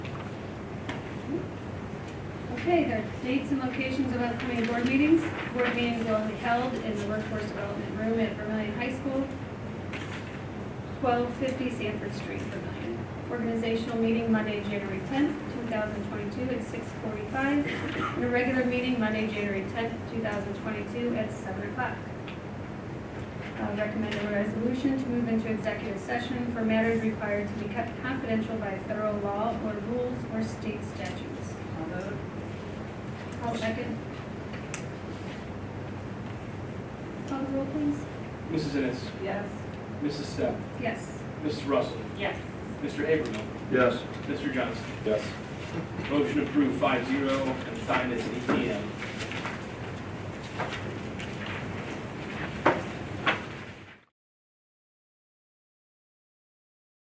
Okay, there are dates and locations of upcoming board meetings. Board meetings will be held in the Workforce Development Room at Vermillion High School, 1250 Sanford Street, Vermillion. Organizational meeting Monday, January 10th, 2022 at 6:45. And a regular meeting Monday, January 10th, 2022 at 7 o'clock. Uh, Recommend a resolution to move into executive session for matters required to be kept confidential by federal law or rules or state statutes. I'll move. I'll second. Call the roll, please. Mrs. Ennis, Yes. Mrs. Steph, Yes. Mrs. Russell, Yes. Mr. Habermill, Yes. Mr. Johnson. Yes. Motion approved five zero and time is eight P M.